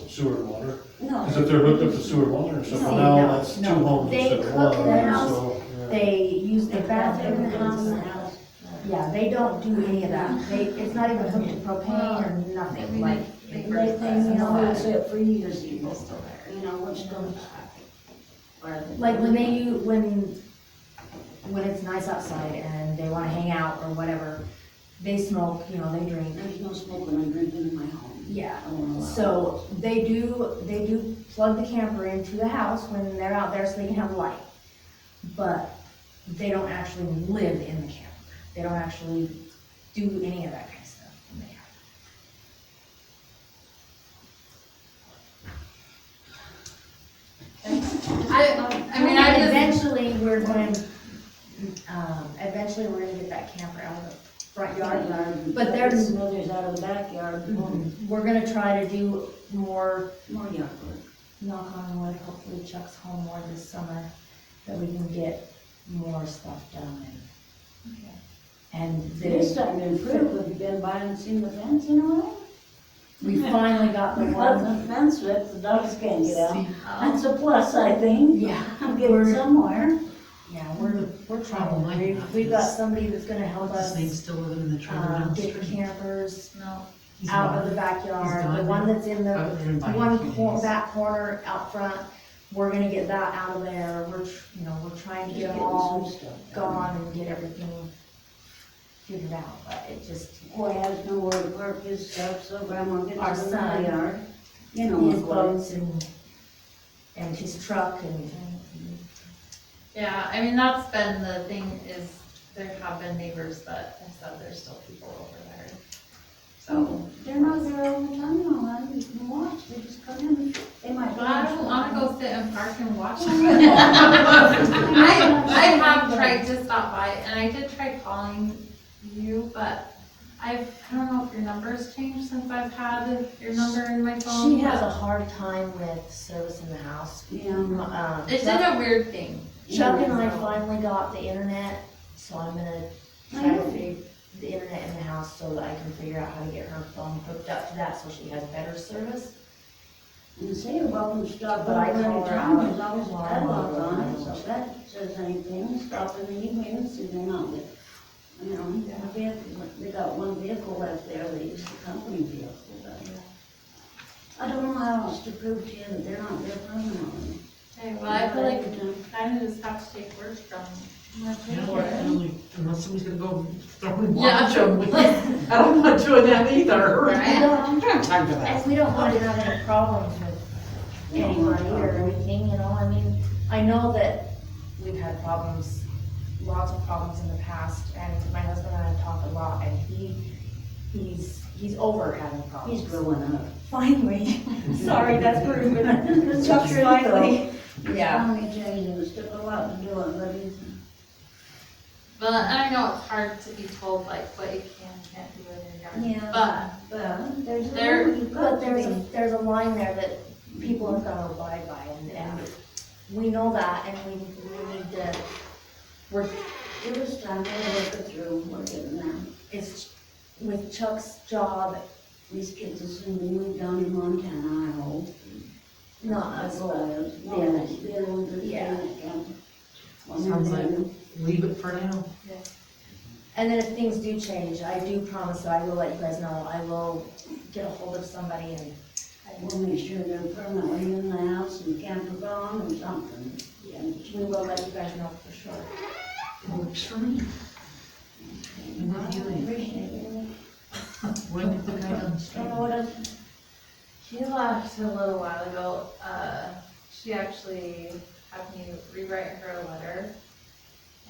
sewer and water. Because No, if they're hooked up to sewer and water or something, No, now no, that's two no. homes They instead of cook one, in their house. so. yeah. they use their They bathroom in the house. house. Yeah, they don't do any of that. They, it's not even hooked to propane or nothing, like, They they, burn they, you know, glass. it's it for years People even. still there. You know, which don't, Or- like when they use, when, when it's nice outside and they wanna hang out or whatever, they smoke, you know, they drink. There's no smoking and drinking in my home. Yeah, I won't allow it. So they do, they do plug the camper into the house when they're out there so they can have light. But they don't actually live in the camper. They don't actually do any of that kind of stuff in the camper. I, I mean, I just, Eventually, we're going, um, eventually, we're gonna get that camper out of the front yard. Backyard. But there's- Mother's out of the backyard, more, Mm-hmm. We're gonna try to do more more yard work. knock on wood, hopefully Chuck's home more this summer, that we can get more stuff done and. And It's this, starting to improve, have you been by and seen the fence in a way? we finally got the one, the fence with, the dogs can't get out. Oh, That's a plus, I think, yeah, I'm getting somewhere. yeah, we're, we're Problem I trying, we, have we've got is- somebody that's gonna help What's his us, name still living in the trailer um, down the get the street? campers no. He's out of the gone. backyard, the gone one now. that's in the I was invited to one his. cor- back corner out front, we're gonna get that out of there, we're, tr- you know, we're trying to get Getting them some all stuff done. gone and get everything figured out, but it just, Boy has nowhere to park his stuff, so grandma Our gets in the son. yard. You know, his what it is. boats and, and his truck and, yeah, I mean, that's been the thing is there have been neighbors that have said there's still people over there. Hmm. So, They're not there all the time, no, I you can watch, they just come in, they might. but I don't wanna go sit and park and watch. I, I have tried to stop by and I did try calling you, but I've, I don't know if your number's changed since I've had your number in my phone. she has a hard time with service in the house. Um, Yeah. Um, It did Chuck a weird thing. Chuck and I finally got the internet, so I'm gonna try to figure the internet in the house so that I can figure out how to get her phone hooked up to that so she has better service. And say you're welcome to stop But by I call another her time, out. as long as the Why? padlock's on, it, so if that says anything, stop in the evening, see they're not with. You know, the vehicle- they got one vehicle left there, they use the company vehicle, but. I don't know how else to prove to you that they're not there permanently. Okay, well, I feel like Every time. kind of just have to take words from my Yeah, well, I paper. don't like- Unless somebody's gonna go throw and Yeah. watch him. I don't want to do that either. I Right? don't have time for that. And we don't want to have any problems with anybody or anything, you know, I mean, I know that we've had problems, lots of problems in the past, and my husband and I have talked a lot, and he, he's, he's over having He's problems. growing up. Finally, sorry, that's rude, but Chuck's finally. Yeah. How many changes, took a lot to do it, but he's. Well, and I know it's hard to be told like what you can, and can't do in your yard, Yeah. but But there's. a There- limit, you've got But to there's, be- a there's a line there that people have gotta abide by, and, and we know that, and we, we need to, we're It was time to work it through, we're getting there. It's with Chuck's job, These kids assume we moved down in Montana, I hope. not us, but Well, the others. The ones that stay in the camp. Well, Sounds they're- Leave it for now. And then if things do change, I do promise that I will let you guys know. I will get a hold of somebody and, We'll make sure they're permanently in the house and camper gone or something. and we will let you guys know for sure. Works for me. And I then you leave. appreciate it. When did the guy on the I don't street? know what else. she left a little while ago. Uh, she actually had me rewrite her a letter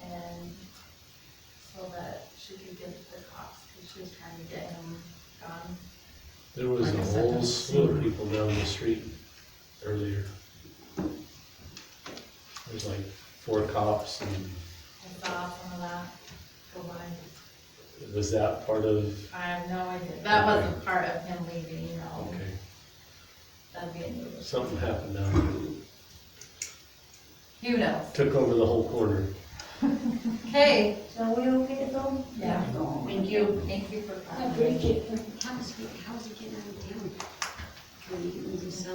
and so that she could give it to the cops because she was trying to get him gone. There was Like a I said, whole that's slew of sewer. people down the street earlier. There's like four cops and I saw some of that go by. was that part of, I have no idea. That Okay. wasn't part of him leaving, you know. okay, That'd be a new. something happened down there. Who knows? Took over the whole corner. Okay. So we okay to go? Yeah. Go. Thank you. Thank you for I coming. appreciate it. How's he, how's he getting out of town? Can he, is he